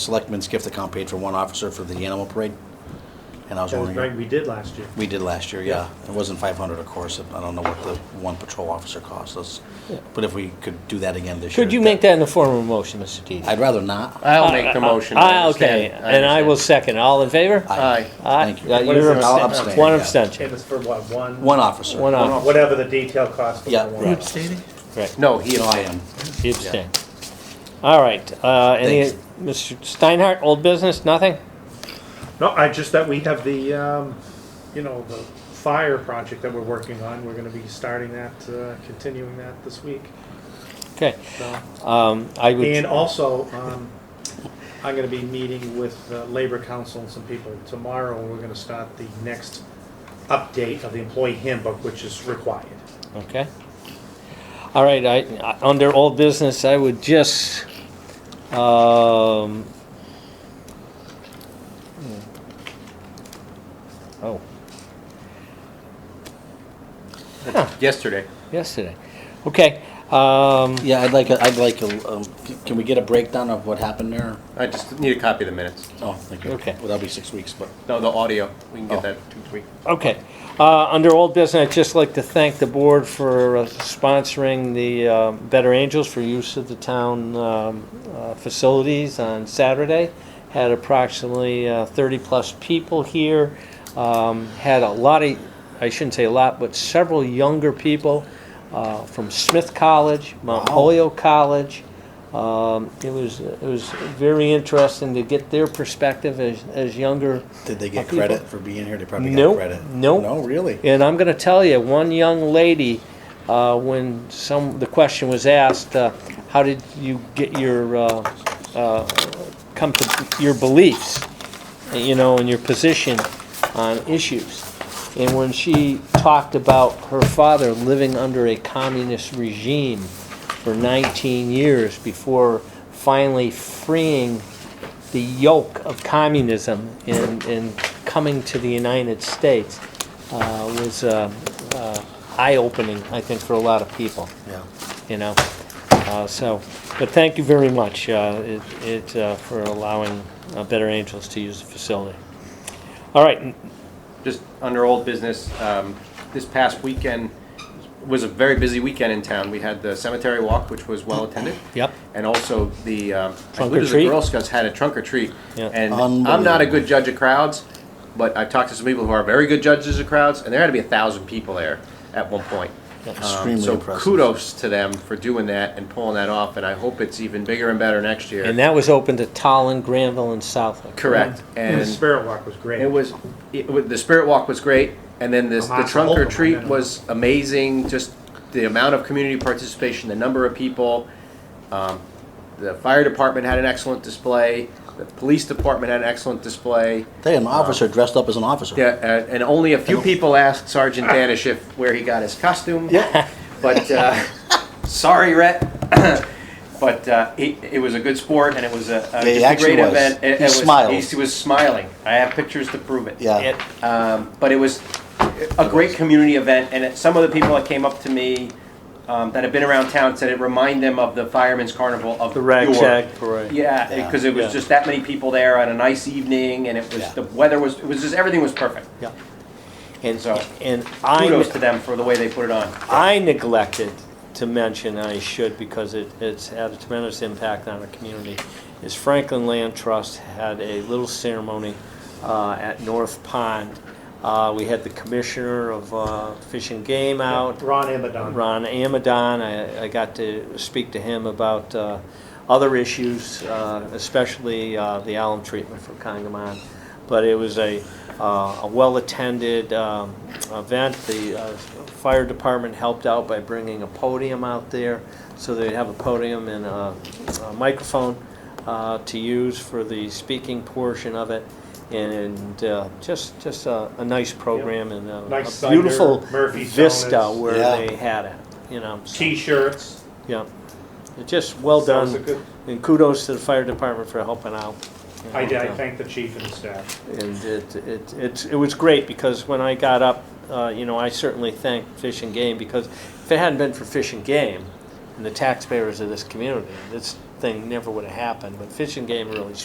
Selectmen's gift account paid for one officer for the animal parade. And I was That was right, wondering, we did last year. we did last year, yeah. It wasn't 500, of course. I don't know what the one patrol officer cost us. Yeah. But if we could do that again this year. Could you make that in the form of a motion, Mr. Deedy? I'd rather not. I'll make the motion. I Ah, Uh, okay, understand. and I will second. All in favor? Aye. Aye. Thank Uh, you. What is you're it? abst- I'll abstain, One yeah. abstention. It was for what, one? One officer. One off, Whatever the detail cost. was Yeah, for one. right. correct. No, he You know, Oh, I abstained. am. You abstain. All right, uh, any, Mr. Steinhardt, old business, nothing? No, I just, that we have the, um, you know, the fire project that we're working on. We're gonna be starting that, uh, continuing that this week. Okay, so. um, I And would, also, um, I'm gonna be meeting with uh, Labor Council and some people tomorrow. and We're gonna start the next update of the employee handbook, which is required. okay. All right, I, I- under old business, I would just, um, hmm. oh, Yesterday. yesterday. Okay, um, Yeah, I'd like, a- I'd like, a- um, c- can we get a breakdown of what happened there? I just need a copy of the minutes. Oh, thank you. Okay. Well, that'll be six weeks, but No, the audio. We can Oh. get that two, three. Okay. Uh, Under old business, I'd just like to thank the board for uh, sponsoring the uh, Better Angels for use of the town um, uh, facilities on Saturday. Had approximately 30-plus people here. Um, Had a lot of, I shouldn't say a lot, but several younger people uh, from Smith College, Mount Wow. Holyoke College. Um, It was, it was very interesting to get their perspective as, as younger did they get People- credit for being here? They probably got Nope, credit. nope. No, really? and I'm going to tell you, one young lady, uh, when some the question was asked, uh, how did you get your uh, uh, come to your beliefs, you know, and your position on issues? And when she talked about her father living under a communist regime for 19 years before finally freeing the yoke of communism in, in coming to the United States uh, was uh, uh, eye-opening, I think, for a lot of people, Yeah. you know? Uh, So, but thank you very much uh, it- it, uh, for allowing uh, Better Angels to use the facility. All right, n- Just under old business, um, this past weekend was a very busy weekend in town. We had the cemetery walk, which was well attended. yep, And also the, um, I Trunk or believe it was the treat? Girl Scouts had a trunk or treat. Yeah. And I'm not a Unbelievable. good judge of crowds, but I've talked to some people who are very good judges of crowds, and there had to be a thousand people there at one point. Um, Extremely So impressive. kudos to them for doing that and pulling that off, and I hope it's even bigger and better next and year. that was open to Tallinn, Granville, and Southwick. Correct. And the And Spirit Walk was great. it was, it wa- the spirit walk was great, and then this, the Lots of trunk or Oklahoma, treat yeah. was amazing, just the amount of community participation, the number of people. Um, The fire department had an excellent display, the police department had an excellent display. They had an officer dressed up as an officer. Yeah, uh, and only a few people asked Sergeant Danish if, where he got his costume. Yeah. But, uh, sorry, Rhett. But, uh, it, it was a good sport and it was a, a- It just a actually great was. event. It- He it was- smiled. He was smiling. I have pictures to prove it. Yeah. It- Um, but it was a great community event, and it- some of the people that came up to me um, that have been around town said it reminded them of the Fireman's Carnival of The Rag yore. Shack Parade. Yeah, because it was Yeah. just that many people there on a nice evening, and it was Yeah. the weather was it was just everything was perfect. Yeah. And, So, and Kudos I, to them for the way they put it on. I neglected to mention, I should because it, it's had a tremendous impact on our community, is Franklin Land Trust had a little ceremony uh, at North Pond. Uh, We had the commissioner of uh, Fish and Game out, Ron Amadon. Ron Amadon. I, I got to speak to him about uh, other issues, uh, especially uh, the alum treatment for Congamon. But it was a, uh, a well-attended um, event. The uh, fire department helped out by bringing a podium out there, so they'd have a podium and a, a microphone uh, to use for the speaking portion of it. And uh, just just a, a nice program and a, Nice a cider, beautiful Murphy's vista Donuts. where Yeah. they had it, you know. so, T-shirts. yeah, It just well That was done, a good- and kudos to the fire department for helping out. you I know, did, I so. thank the chief and the staff. And it, it, it's, it was great because when I got up, uh, you know, I certainly thanked Fish and Game because if it hadn't been for Fish and Game and the taxpayers of this community, this thing never would have happened. But Fish and Game really